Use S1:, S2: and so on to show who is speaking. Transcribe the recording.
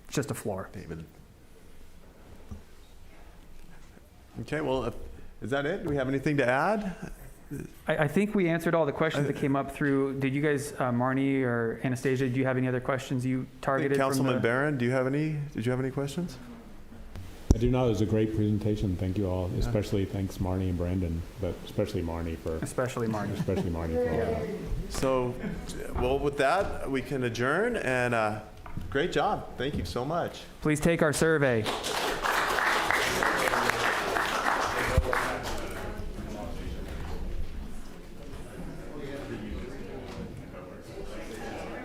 S1: just a floor.
S2: David. Okay, well, if- is that it? Do we have anything to add?
S1: I, I think we answered all the questions that came up through, did you guys, uh, Marnie or Anastasia, do you have any other questions you targeted from
S2: Councilman
S1: the?
S2: Barron, do you have any, did you have any questions?
S3: I do know it was a great presentation. Thank you all, especially thanks Marnie and Brandon, but especially Marnie for,
S1: Especially Marnie.
S3: especially Marnie for all that.
S2: So, well, with that, we can adjourn, and uh, great job. Thank you so much.
S1: Please take our survey.